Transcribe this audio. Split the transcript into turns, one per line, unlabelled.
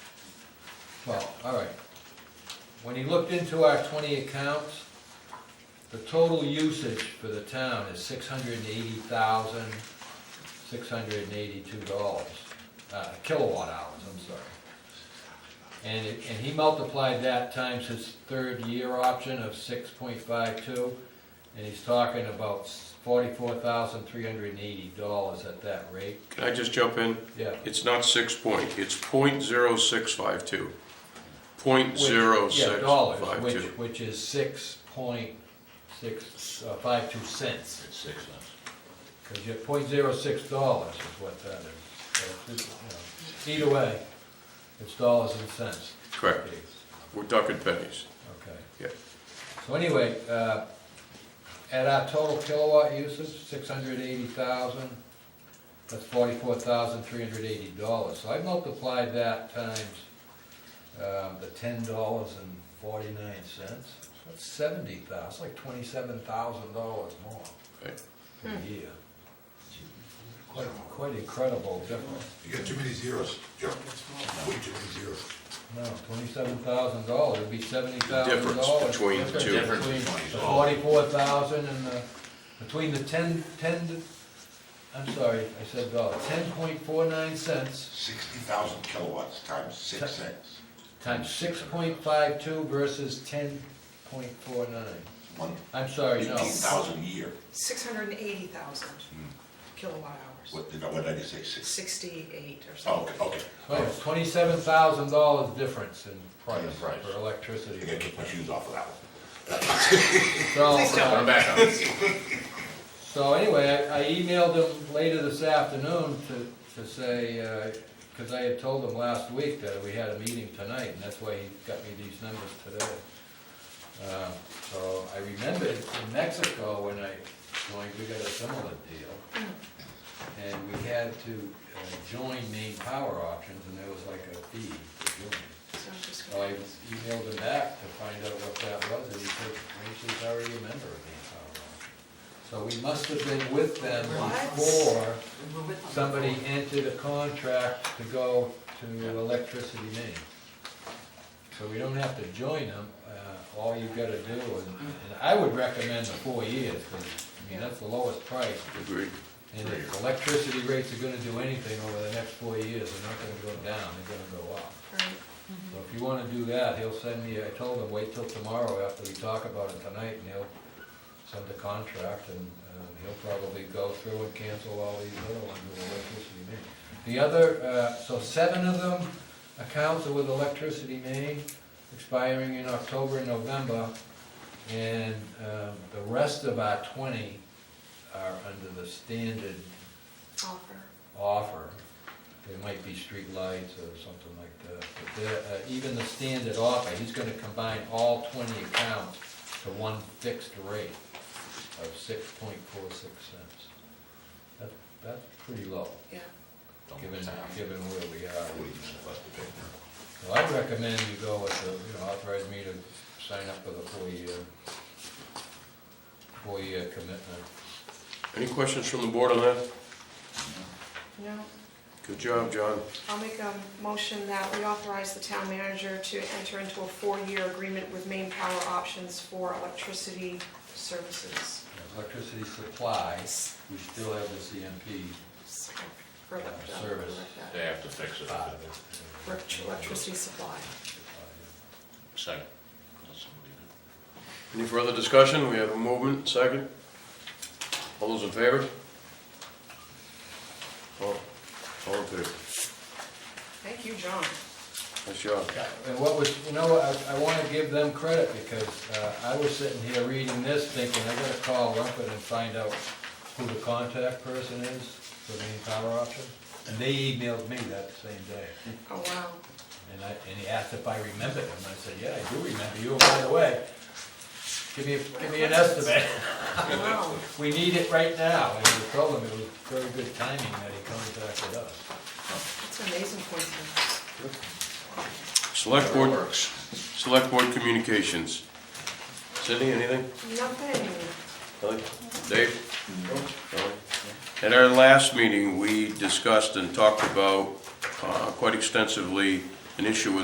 Well, all right. When he looked into our twenty accounts, the total usage for the town is six hundred and eighty thousand, six hundred and eighty-two dollars, uh, kilowatt hours, I'm sorry. And, it- and he multiplied that times his third year option of six point five two, and he's talking about forty-four thousand, three hundred and eighty dollars at that rate,
Can I just jump in?
yeah.
It's not six point, it's point zero six five two. Point
Which-
zero
yeah,
six
dollars,
five
which-
two.
Which is six point six, uh, five two cents,
It's six cents.
because you're point zero six dollars is what that is. So it's just, you know, Either way, it's dollars and cents.
Correct. We're ducking pennies.
Okay.
Yeah.
So anyway, uh, at our total kilowatt usage, six hundred eighty thousand, that's forty-four thousand three hundred eighty dollars. So I multiplied that times um, the ten dollars and forty-nine cents, that's seventy thousand, it's like twenty-seven thousand dollars more
Right.
in a year. Quite, quite incredible difference.
You got too many zeros, Joe. Way too many zeros.
No, twenty-seven thousand dollars, it'd be seventy thousand
difference
dollars.
between the two.
Difference
Between
between
the
the-
forty-four thousand and the, between the ten, ten, I'm sorry, I said dollar, ten point four nine cents
Sixty thousand kilowatts times six cents,
times six point five two versus ten point four nine.
one,
I'm sorry,
eighteen
no,
thousand a year.
680,000 kilowatt hours.
What, did- what did I say, six?
68 or
Oh,
something.
okay, okay.
twenty-seven thousand dollars difference in price
In price.
for electricity.
I gotta kick my shoes off of that one.
So,
Please don't.
uh,
I'm
back on.
So anyway, I I emailed him later this afternoon to, to say, because I had told him last week that we had a meeting tonight, and that's why he got me these numbers today. Uh, So I remembered in Mexico when I joined, we got a similar deal. And we had to uh, join main power options, and there was like a fee to join.
So I'm just
So Oh, I
gonna-
emailed him back to find out what that was, and he said, Rachel's already a member of the Empower Alliance. So we must have been with them
What?
before somebody entered a contract to go to electricity main. So we don't have to join them, uh, all you've gotta do, and, and I would recommend the four years, 'cause, I mean, that's the lowest price.
Agreed.
And if electricity rates are gonna do anything over the next four years, they're not gonna go down, they're gonna go up.
Right.
So if you wanna do that, he'll send me, I told him, wait till tomorrow after we talk about it tonight, and he'll send the contract, and um, he'll probably go through and cancel all these other ones with electricity main. The other, uh, so seven of them accounts are with electricity main, expiring in October and November, and um, the rest of our twenty are under the standard
Offer.
offer. There might be street lights or something like that, but there, uh, even the standard offer, he's gonna combine all twenty accounts to one fixed rate of six point four six cents. That, that's pretty low,
Yeah.
given, given where we are.
Forty percent less to pay now.
So I'd recommend you go with the, you know, authorize me to sign up for the four-year, four-year commitment.
Any questions from the board on that?
No,
Good job, John.
I'll make a motion that we authorize the town manager to enter into a four-year agreement with Maine Power Options for electricity services.
Electricity supply, we still have the CMP
Or elect- uh,
Service.
elect-
They have to fix it.
part of it.
elect- Electricity supply.
Second. Let somebody do
Any further discussion? We have a movement, second. All those in favor? All, all in favor?
Thank you, John.
Nice job.
And what was, you know, I, I wanna give them credit because, uh, I was sitting here reading this thinking, I gotta call Rumpet and find out who the contact person is for the main power option. And they emailed me that same day.
Oh, wow.
And I, and he asked if I remembered him. I said, yeah, I do remember you. And by the way, give me, give me an estimate.
Wow.
We need it right now. And we told him it was very good timing that he contacted us.
That's an amazing coincidence.
Select Board, Select Board Communications. Sydney, anything?
Nothing.
Kelly? Dave? Kelly? At our last meeting, we discussed and talked about uh, quite extensively an issue with